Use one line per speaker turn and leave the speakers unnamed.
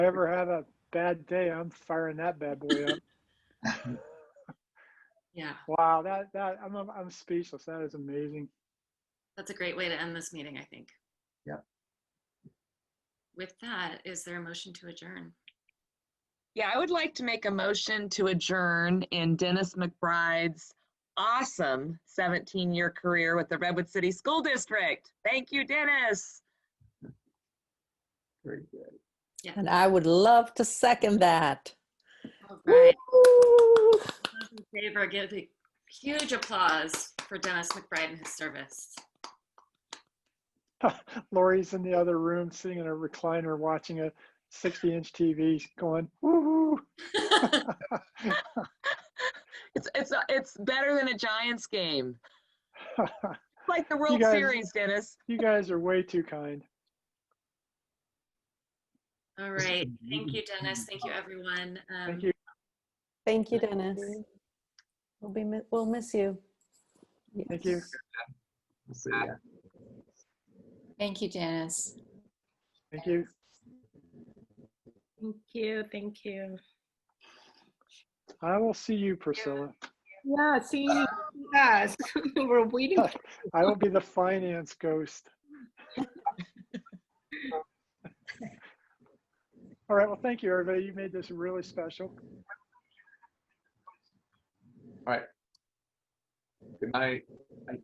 ever have a bad day, I'm firing that bad boy up.
Yeah,
Wow, that that I'm I'm speechless. That is amazing.
that's a great way to end this meeting, I think.
Yep.
With that, is there a motion to adjourn?
Yeah, I would like to make a motion to adjourn in Dennis McBride's awesome 17-year career with the Redwood City School District. Thank you, Dennis.
Very good.
And I would love to second that.
All right,
Woo!
those in favor, give a huge applause for Dennis McBride and his service.
Lori's in the other room, sitting in a recliner, watching a 60-inch TV, going woo
It's it's it's better than a Giants game. It's Like the World
guys-
Series, Dennis.
you guys are way too kind.
All right, thank you, Dennis. Thank you, everyone. Um,
Thank you.
Thank you, Dennis. We'll be, mi- we'll miss you.
Thank you.
We'll see ya.
Thank you, Janice.
Thank you.
Thank you, thank you.
I will see you, Priscilla.
Yeah, see, yes, we're waiting.
I will be the finance ghost. All right. Well, thank you, everybody. You made this really special.
Good night.